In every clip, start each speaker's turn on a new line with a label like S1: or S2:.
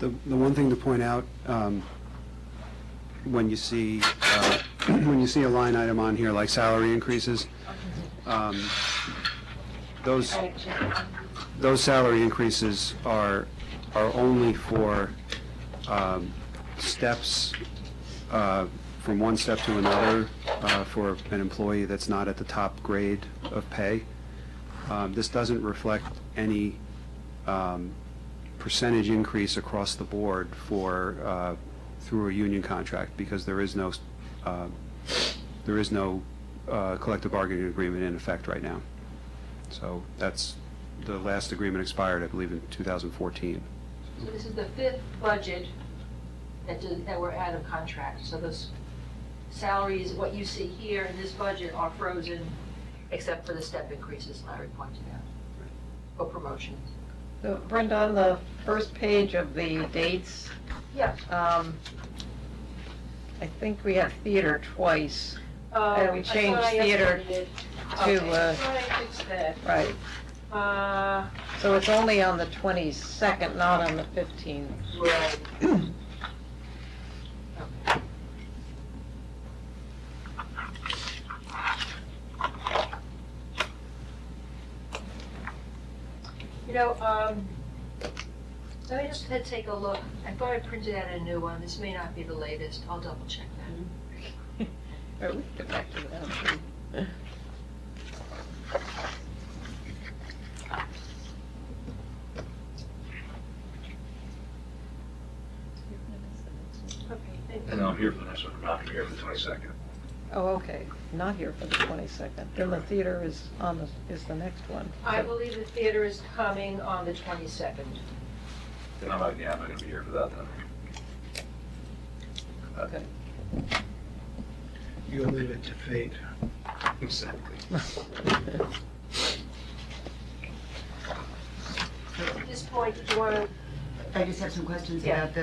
S1: The, the one thing to point out, um, when you see, uh, when you see a line item on here like salary increases, um, those, those salary increases are, are only for um, steps, uh, from one step to another, uh, for an employee that's not at the top grade of pay. Um, This doesn't reflect any um, percentage increase across the board for, uh, through a union contract, because there is no, uh, there is no uh, collective bargaining agreement in effect right now. So that's, the last agreement expired, I believe, in 2014.
S2: So this is the fifth budget that, did- that we're out of contract, so those salaries, what you see here in this budget are frozen, except for the step increases Larry pointed out, for promotions.
S3: So Brenda, on the first page of the dates,
S2: Yeah.
S3: um, I think we have theater twice. And
S2: um,
S3: we changed theater to, uh,
S2: Try and fix that.
S3: Right.
S2: Uh,
S3: So it's only on the 22nd, not on the 15th.
S2: right. Okay. You know, um, let me just head take a look. I thought I printed out a new one. This may not be the latest. I'll double check that.
S3: Or we can Get back to that.
S2: Mm-hmm. Okay, thank you.
S4: And I'm here for the next one, I'm not here for the twenty-second.
S3: Oh, okay, not here for the 22nd. Then the theater is on, the is the next one.
S2: I believe the theater is coming on the 22nd.
S4: Then I'm not, yeah, I'm not gonna be here for that
S3: Okay.
S4: then.
S5: You'll leave it to fate.
S4: Exactly.
S2: At this point, did you want to
S6: I just have some questions
S2: Yeah.
S6: about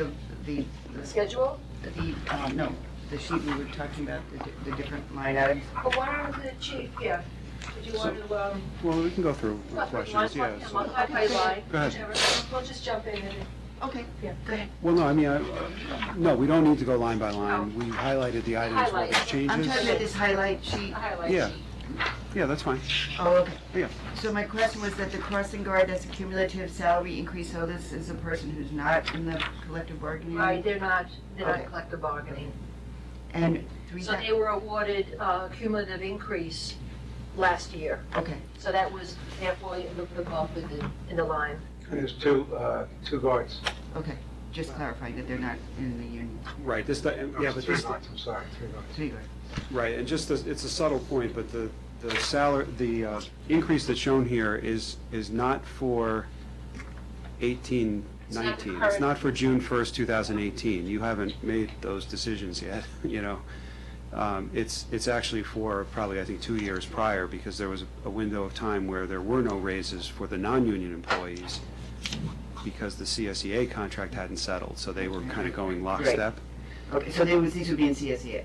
S6: the, the,
S2: schedule?
S6: the, uh, no, the sheet we were talking about, the di- the different line items.
S2: But why don't the chief, yeah, did you want to, um,
S1: Well, we can go through our
S2: what, you want
S1: questions,
S2: to
S1: yeah.
S2: talk
S1: so-
S2: about line by line?
S1: Go ahead.
S2: whichever. We'll just jump in and,
S6: Okay,
S2: Yeah.
S6: go ahead.
S1: Well, no, I mean, I- no, we don't need to go line by line. We highlighted the items where there's
S2: Highlight.
S6: I'm talking
S1: changes.
S6: about this highlight sheet.
S2: I highlight.
S1: Yeah. Yeah, that's fine.
S6: Oh, okay.
S1: Yeah.
S6: So my question was that the crossing guard, that's a cumulative salary increase, so this is a person who's not in the collective bargaining?
S2: Right, they're not, they're not
S6: Okay.
S2: collective bargaining.
S6: And three
S2: So
S6: thousand?
S2: they were awarded uh, cumulative increase last year.
S6: Okay,
S2: So that was therefore it looked them up in the, in the line.
S5: There's two, uh, two guards.
S6: okay, just clarifying that they're not in the union,
S1: Right, this, yeah, but
S5: Three
S1: this,
S5: guards, I'm sorry, three guards.
S6: three guards.
S1: Right, and just, as- it's a subtle point, but the, the salary, the uh, increase that's shown here is, is not for eighteen
S2: not the
S1: nineteen. It's
S2: current-
S1: not for June first, two thousand eighteen. You haven't made those decisions yet, you know? Um, It's, it's actually for probably, I think, two years prior, because there was a window of time where there were no raises for the non-union employees because the CSEA contract hadn't settled, so they were kind of going lockstep.
S6: Okay, so they would, these would be in E CSEA?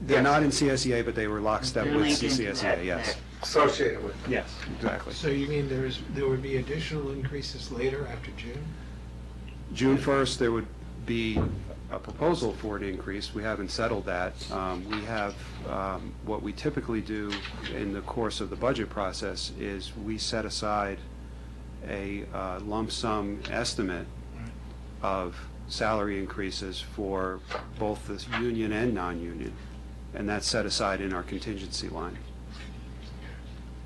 S1: They're not in CSEA, but they were lockstep
S6: They're
S1: with
S6: linked into
S1: CSEA,
S6: that-
S1: E yes.
S6: that-
S5: Associated with.
S1: Yes, exactly.
S7: So you mean there is, there would be additional increases later after June?
S1: June 1st, there would be a proposal for an increase. We haven't settled that. Um, We have, um, what we typically do in the course of the budget process is we set aside a uh, lump sum estimate of salary increases for both the union and non-union, and that's set aside in our contingency line.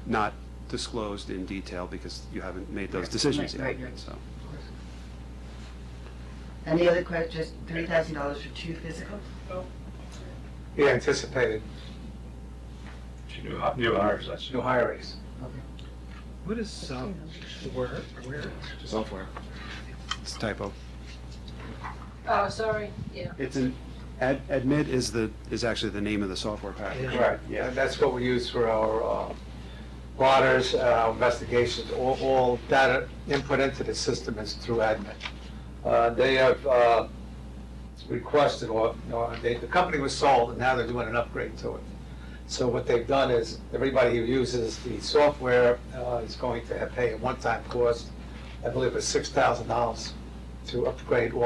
S1: Not disclosed in detail because you haven't made those
S6: Right,
S1: decisions yet,
S6: right, right.
S1: so.
S6: And the other question, just three thousand dollars for two physicals?
S5: Yeah, anticipated,
S4: She knew, new hires, that's.
S5: new hires.
S7: What is uh, software, where?
S4: Software.
S1: It's a typo.
S2: Oh, sorry, yeah.
S1: It's an, ad- admit is the, is actually the name of the software package.
S7: Yeah.
S5: Right,
S1: Yeah.
S5: and that's what we use for our uh, waters, uh, investigations, all, all data input into the system is through admin. Uh, They have uh, requested, or, no, they, the company was sold, and now they're doing an upgrade to it. So what they've done is, everybody who uses the software uh, is going to pay a one-time cost, I believe it's six thousand dollars to upgrade all